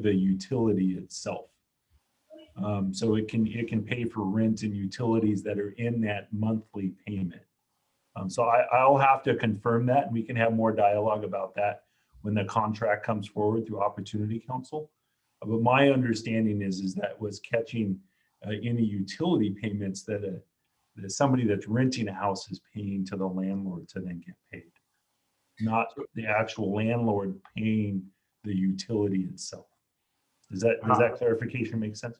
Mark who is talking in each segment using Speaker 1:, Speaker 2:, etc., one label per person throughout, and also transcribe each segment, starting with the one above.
Speaker 1: the utility itself. Um, so it can, it can pay for rent and utilities that are in that monthly payment. Um, so I, I'll have to confirm that and we can have more dialogue about that when the contract comes forward through Opportunity Council. Uh, But my understanding is, is that was catching uh, any utility payments that a, that somebody that's renting a house is paying to the landlord to then get paid. Not the actual landlord paying the utility itself. Does that, does that clarification make sense?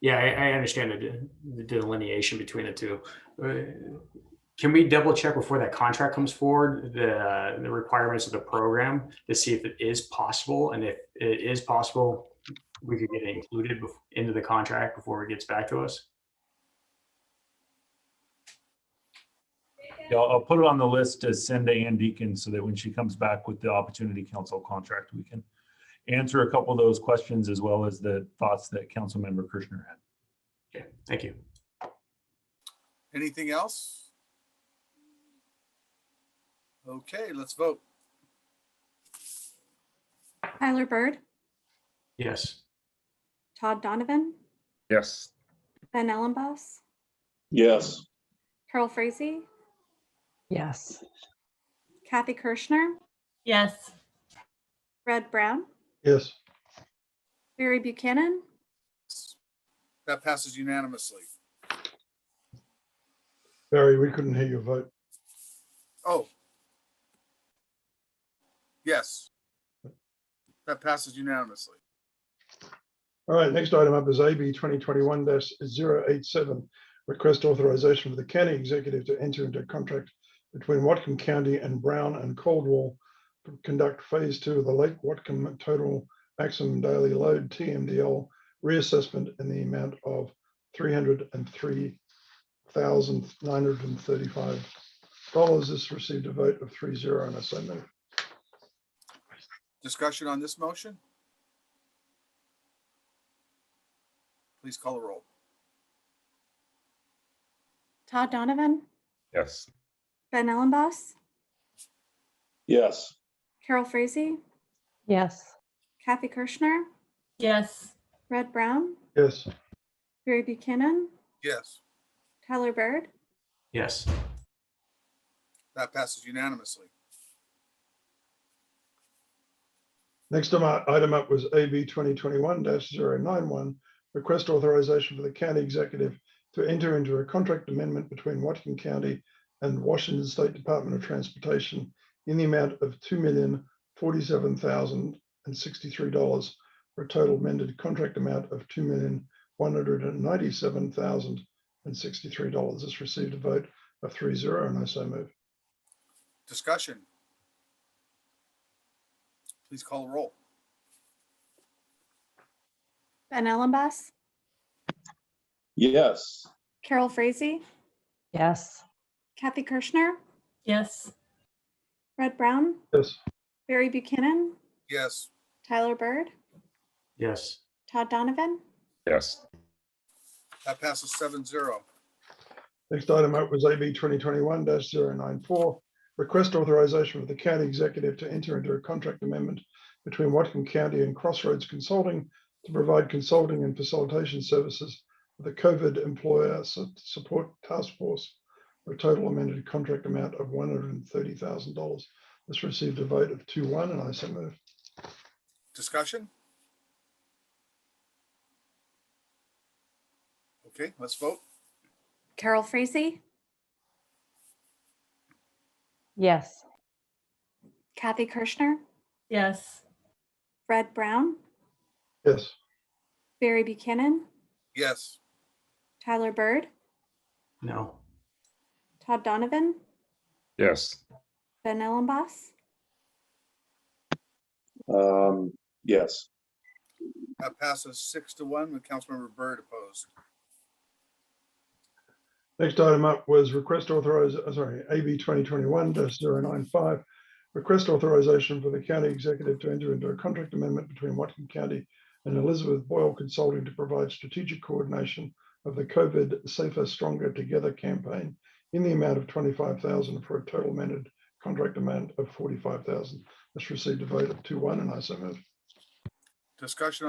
Speaker 2: Yeah, I, I understand the de- the delineation between the two. Uh, Can we double check before that contract comes forward, the, the requirements of the program to see if it is possible? And if it is possible, we could get it included bef- into the contract before it gets back to us?
Speaker 1: Yeah, I'll, I'll put it on the list to send to Ann Deacon so that when she comes back with the Opportunity Council contract, we can answer a couple of those questions as well as the thoughts that Councilmember Kirschner had.
Speaker 2: Okay, thank you.
Speaker 3: Anything else? Okay, let's vote.
Speaker 4: Tyler Bird,
Speaker 2: Yes,
Speaker 4: Todd Donovan,
Speaker 5: Yes.
Speaker 4: Ben Ellenboss,
Speaker 6: Yes.
Speaker 4: Carol Frazee,
Speaker 7: Yes.
Speaker 4: Kathy Kirschner,
Speaker 8: Yes.
Speaker 4: Red Brown,
Speaker 6: Yes.
Speaker 4: Barry Buchanan,
Speaker 3: That passes unanimously.
Speaker 6: Barry, we couldn't hear your vote.
Speaker 3: Oh. Yes. That passes unanimously.
Speaker 6: All right, next item up is AB twenty twenty-one 87 Request authorization for the county executive to enter into a contract between Watcom County and Brown and Caldwell to conduct phase two of the Lake Watcom Total Maximum Daily Load TMDL reassessment in the amount of three hundred and three thousand nine hundred and thirty-five dollars. This received a vote of three zero and I so move.
Speaker 3: Discussion on this motion? Please call a roll.
Speaker 4: Todd Donovan,
Speaker 5: Yes.
Speaker 4: Ben Ellenboss,
Speaker 6: Yes.
Speaker 4: Carol Frazee,
Speaker 7: Yes.
Speaker 4: Kathy Kirschner,
Speaker 8: Yes.
Speaker 4: Red Brown,
Speaker 6: Yes.
Speaker 4: Barry Buchanan,
Speaker 3: Yes,
Speaker 4: Tyler Bird,
Speaker 2: yes,
Speaker 3: that passes unanimously.
Speaker 6: Next item up- item up was AB twenty twenty-one 91 request authorization for the county executive to enter into a contract amendment between Watkin County and Washington State Department of Transportation in the amount of two million forty-seven thousand and sixty-three dollars for a total amended contract amount of two million one hundred and ninety-seven thousand and sixty-three dollars. This received a vote of three zero and I so move.
Speaker 3: Discussion? Please call a roll.
Speaker 4: Ben Ellenboss,
Speaker 6: Yes.
Speaker 4: Carol Frazee,
Speaker 7: Yes.
Speaker 4: Kathy Kirschner,
Speaker 8: Yes.
Speaker 4: Red Brown,
Speaker 6: Yes.
Speaker 4: Barry Buchanan,
Speaker 3: Yes,
Speaker 4: Tyler Bird,
Speaker 2: yes.
Speaker 4: Todd Donovan,
Speaker 5: Yes.
Speaker 3: that passes seven zero.
Speaker 6: Next item up was AB twenty twenty-one 94 Request authorization for the county executive to enter into a contract amendment between Watcom County and Crossroads Consulting to provide consulting and facilitation services for the COVID Employer Su- Support Task Force for a total amended contract amount of one hundred and thirty thousand dollars. This received a vote of two one and I so move.
Speaker 3: Discussion? Okay, let's vote.
Speaker 4: Carol Frazee,
Speaker 7: Yes.
Speaker 4: Kathy Kirschner,
Speaker 8: Yes.
Speaker 4: Red Brown,
Speaker 6: Yes.
Speaker 4: Barry Buchanan,
Speaker 3: Yes,
Speaker 4: Tyler Bird,
Speaker 2: No,
Speaker 4: Todd Donovan,
Speaker 5: Yes.
Speaker 4: Ben Ellenboss,
Speaker 5: Um, yes.
Speaker 3: that passes six to one with Councilmember Byrd opposed.
Speaker 6: Next item up was request authorize, uh, sorry, AB twenty twenty-one 95 Request authorization for the county executive to enter into a contract amendment between Watkin County and Elizabeth Boyle Consulting to provide strategic coordination of the COVID Safer Stronger Together campaign in the amount of twenty-five thousand for a total amended contract amount of forty-five thousand. This received a vote of two one and I so move.
Speaker 3: Discussion on